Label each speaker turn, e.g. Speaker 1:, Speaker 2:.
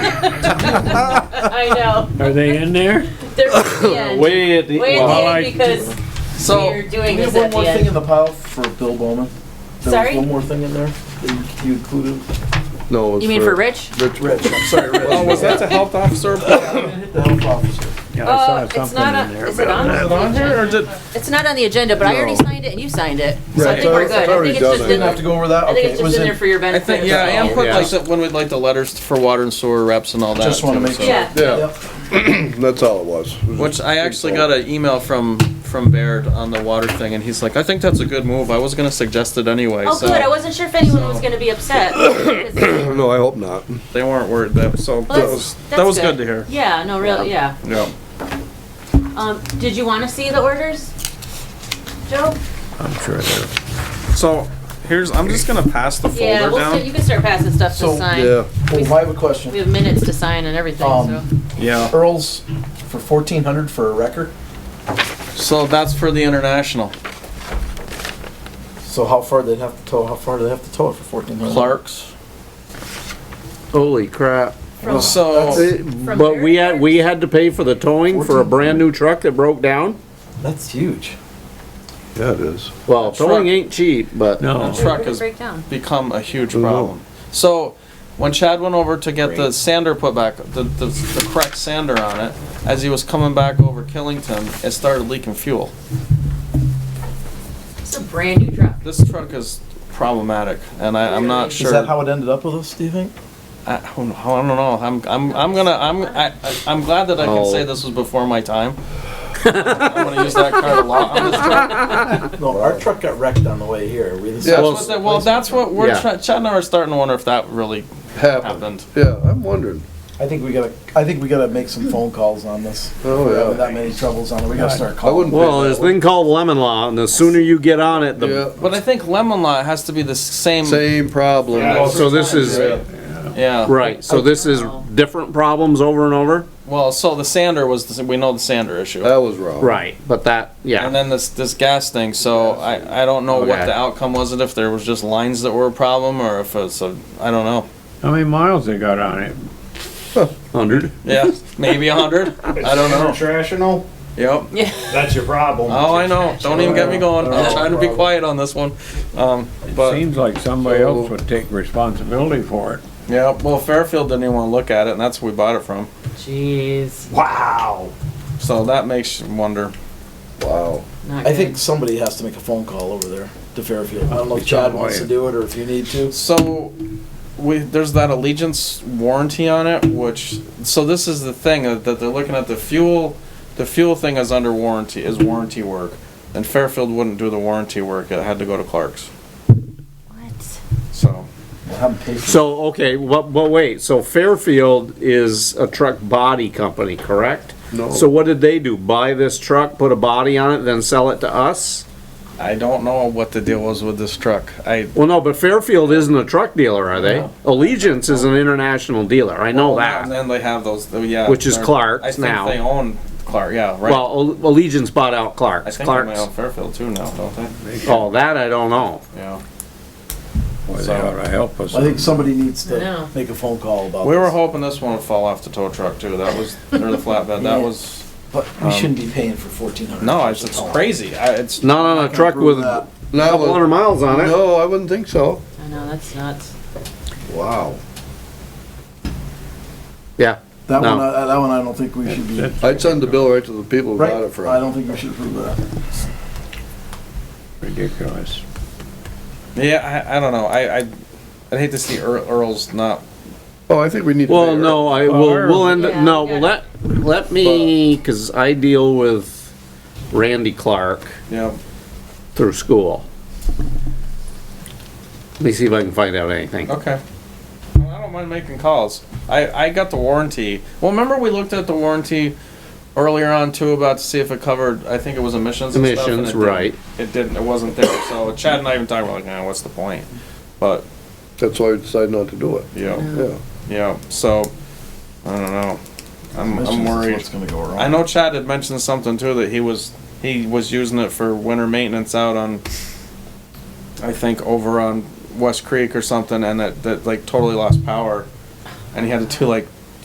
Speaker 1: I know.
Speaker 2: Are they in there?
Speaker 1: They're at the end.
Speaker 3: Way at the
Speaker 1: Way at
Speaker 3: well,
Speaker 1: the
Speaker 2: Well, I-
Speaker 1: end because
Speaker 4: So,
Speaker 1: We are doing
Speaker 4: we
Speaker 1: this
Speaker 4: have one
Speaker 1: at
Speaker 4: more
Speaker 1: the
Speaker 4: thing
Speaker 1: end.
Speaker 4: in the pile for Bill Bowman. There
Speaker 1: Sorry?
Speaker 4: was one more thing in there that you you included.
Speaker 3: No, it's
Speaker 1: you mean for Rich?
Speaker 3: Rich
Speaker 4: Rich, I'm sorry, Rich.
Speaker 5: Oh, was that the health officer?
Speaker 4: I'm gonna hit the health officer.
Speaker 2: Yeah, I
Speaker 1: Uh,
Speaker 2: saw
Speaker 1: it's
Speaker 2: something
Speaker 1: not
Speaker 2: in
Speaker 1: on.
Speaker 2: there.
Speaker 1: Is it
Speaker 2: but-
Speaker 1: on?
Speaker 5: Is it on here, or is it-
Speaker 1: It's not on the agenda, but I already
Speaker 3: No.
Speaker 1: signed it and you signed it, so I
Speaker 3: Right,
Speaker 1: think we're
Speaker 3: it's
Speaker 1: good. I
Speaker 3: already
Speaker 1: think it's just
Speaker 3: done.
Speaker 1: in
Speaker 4: Didn't have to
Speaker 1: the.
Speaker 4: go over that?
Speaker 1: I
Speaker 4: Okay,
Speaker 1: think it's
Speaker 4: it was
Speaker 1: just in there for your
Speaker 5: I
Speaker 1: benefit. Oh,
Speaker 5: think, yeah,
Speaker 1: that's
Speaker 5: and
Speaker 1: all.
Speaker 5: put
Speaker 3: Yeah.
Speaker 5: like the, when we like the letters for water and sewer reps and all that.
Speaker 4: Just wanna
Speaker 5: too,
Speaker 4: make
Speaker 5: so-
Speaker 4: sure.
Speaker 1: Yeah.
Speaker 3: Yeah,
Speaker 4: Yep.
Speaker 3: that's all it was. It was
Speaker 5: Which
Speaker 3: just
Speaker 5: I
Speaker 3: big
Speaker 5: actually
Speaker 3: ball.
Speaker 5: got an email from, from Baird on the water thing, and he's like, I think that's a good move, I was gonna suggest it anyway,
Speaker 1: Oh,
Speaker 5: so.
Speaker 1: good. I wasn't sure if anyone was gonna be upset. 'Cause-
Speaker 3: No, I hope not.
Speaker 5: They weren't worried, that, so,
Speaker 1: Well,
Speaker 5: that
Speaker 1: that's-
Speaker 5: was, that
Speaker 1: that's
Speaker 5: was
Speaker 1: good.
Speaker 5: good to hear.
Speaker 1: Yeah, no, really, yeah.
Speaker 5: Yeah.
Speaker 1: Um, did you wanna see the orders? Joe?
Speaker 5: So, here's, I'm just gonna pass the
Speaker 1: Yeah,
Speaker 5: folder
Speaker 1: we'll, st- you
Speaker 5: down.
Speaker 1: can start passing stuff to
Speaker 4: So-
Speaker 1: sign.
Speaker 3: Yeah,
Speaker 4: Well, I have a
Speaker 1: We
Speaker 4: question.
Speaker 1: have minutes to sign and everything, so.
Speaker 4: Um,
Speaker 5: Yeah,
Speaker 4: Earl's for fourteen hundred for a record.
Speaker 5: so that's for the international.
Speaker 4: So how far they'd have to tow, how far do they have to tow it for fourteen hundred?
Speaker 5: Clark's.
Speaker 6: Holy crap.
Speaker 1: From,
Speaker 5: So,
Speaker 6: Eh, But we had, we had to pay for the towing for a brand new truck that broke down?
Speaker 4: That's huge.
Speaker 3: yeah, it is.
Speaker 6: Well,
Speaker 5: Truck.
Speaker 6: towing ain't cheap, but.
Speaker 2: No.
Speaker 5: truck
Speaker 1: truck
Speaker 5: is-
Speaker 1: break down.
Speaker 5: become a huge
Speaker 3: know.
Speaker 5: problem. So, when Chad went over to get the sander put back, the, the, the correct sander on it, as he was coming back over Killington, it started leaking fuel.
Speaker 1: It's a brand new truck.
Speaker 5: This truck is problematic, and I, I'm not
Speaker 4: Is that
Speaker 5: sure.
Speaker 4: how it ended up with us, do you think?
Speaker 5: I, I don't know, I don't know, I'm, I'm, I'm gonna, I'm, I, I- I'm glad that I can
Speaker 6: Oh.
Speaker 5: say this was before my time. I'm gonna use that card a lot on this truck.
Speaker 4: No, our truck got wrecked on the way here. We
Speaker 5: That's
Speaker 4: decided-
Speaker 6: well,
Speaker 5: what, they- well, that's what we're,
Speaker 6: Yeah.
Speaker 5: try- Chad and I are starting to wonder if that really
Speaker 3: Happened.
Speaker 5: happened.
Speaker 3: Yeah, I'm wondering.
Speaker 4: I think we gotta, I think we gotta make some phone calls on this.
Speaker 3: Oh,
Speaker 4: We're
Speaker 3: yeah.
Speaker 4: having that many troubles on it. We gotta start
Speaker 3: I wouldn't
Speaker 4: calling.
Speaker 6: Well, there's a thing called lemon law, and the sooner you get on it,
Speaker 3: Yeah,
Speaker 6: the,
Speaker 5: But I think Lemon Law has to be the same,
Speaker 3: same problem.
Speaker 2: Yeah.
Speaker 6: so this is,
Speaker 3: Yeah.
Speaker 5: yeah.
Speaker 6: right, so this is different problems over and over?
Speaker 5: Well, so the sander was the, we know the sander issue,
Speaker 3: That was wrong.
Speaker 6: Right, but that,
Speaker 5: and
Speaker 6: Oh, yeah,
Speaker 5: then this this gas thing. So I I don't know what
Speaker 6: Okay.
Speaker 5: the outcome was. It if there was just lines that were a problem, or if it's a I don't know.
Speaker 2: How many miles they got on it?
Speaker 6: hundred.
Speaker 5: Yeah, maybe a hundred. I don't know.
Speaker 7: International,
Speaker 5: Yep.
Speaker 7: that's your problem.
Speaker 5: Oh, I know. Don't even
Speaker 6: Uh,
Speaker 5: get me going. I'm trying to be quiet on this one. Um, but
Speaker 2: Seems like somebody
Speaker 3: So-
Speaker 2: else would take responsibility for it.
Speaker 5: yeah, well, Fairfield didn't even want to look at it, and that's where we bought it from.
Speaker 1: Jeez.
Speaker 7: Wow.
Speaker 5: So that makes you wonder.
Speaker 3: Wow.
Speaker 1: Not
Speaker 4: I
Speaker 1: good.
Speaker 4: think somebody has to make a phone call over there to Fairfield. I don't know if Chad wants to do it or if you need to.
Speaker 5: So we there's that Allegiance warranty on it, which so this is the thing uh, that they're looking at the fuel. The fuel thing is under warranty is warranty work, and Fairfield wouldn't do the warranty work. It had to go to Clark's.
Speaker 1: What?
Speaker 5: So
Speaker 4: I'm patient.
Speaker 6: So, okay, but, but wait, so Fairfield is a truck body company, correct?
Speaker 3: No.
Speaker 6: So what did they do? Buy this truck, put a body on it, then sell it to us?
Speaker 5: I don't know what the deal was with this truck. I
Speaker 6: Well, no, but Fairfield isn't a truck dealer, are they? Allegiance is an international dealer, I know
Speaker 5: And
Speaker 6: that.
Speaker 5: then they have those. oh, Yeah,
Speaker 6: Which is
Speaker 5: they're-
Speaker 6: Clark's
Speaker 5: I think
Speaker 6: now.
Speaker 5: they own Clark. Yeah, right.
Speaker 6: Well, Al- Allegiance bought out
Speaker 5: I think
Speaker 6: Clark's,
Speaker 5: they they
Speaker 6: Clark's.
Speaker 5: own Fairfield too now, don't they?
Speaker 6: Oh, that I don't know.
Speaker 5: Yeah.
Speaker 2: Boy, they
Speaker 5: So-
Speaker 2: ought to help us.
Speaker 4: I think somebody needs
Speaker 1: I know.
Speaker 4: to make a phone call about
Speaker 5: We were
Speaker 4: this.
Speaker 5: hoping this one would fall off the tow truck too. That was or the flatbed. That was.
Speaker 4: But we shouldn't be paying for fourteen hundred.
Speaker 5: No, it's, it's crazy. I, it's
Speaker 6: Not on a truck with a
Speaker 3: Now,
Speaker 6: couple hundred miles on it.
Speaker 3: no, I wouldn't think so.
Speaker 1: I know, that's nuts.
Speaker 3: Wow.
Speaker 6: Yeah,
Speaker 4: That
Speaker 6: No.
Speaker 4: one, I- that one I don't think we should be, right?
Speaker 3: I'd send the bill right to the people who got it from.
Speaker 4: I don't think we should approve that.
Speaker 2: Ridiculous.
Speaker 5: yeah. I, I don't know. I I I'd hate to see Earl, Earl's not.
Speaker 3: Oh, I think we need to.
Speaker 6: well,
Speaker 3: pay her.
Speaker 6: no, I will, we'll end,
Speaker 1: Yeah,
Speaker 6: no,
Speaker 1: we got
Speaker 6: let, let me, cause I deal with Randy Clark
Speaker 5: Yeah.
Speaker 6: through school. Let me see if I can find out anything.
Speaker 5: Okay. Well, I don't mind making calls. I I got the warranty. Well, remember we looked at the warranty earlier on too about to see if it covered. I think it was emissions. and stuff, and
Speaker 6: Emissions,
Speaker 5: it didn't-
Speaker 6: right.
Speaker 5: It didn't. It wasn't there. So Chad and I even talked about like, nah, what's the point? But
Speaker 3: That's why we decided not to do it.
Speaker 5: yeah,
Speaker 3: Yeah.
Speaker 5: yeah. So I don't know. I'm I'm
Speaker 4: Commissions is
Speaker 5: worried.
Speaker 4: What's gonna go wrong?
Speaker 5: I know Chad had mentioned something too that he was he was using it for winter maintenance out on I think over on West Creek or something and that, that like totally lost power and he had to do like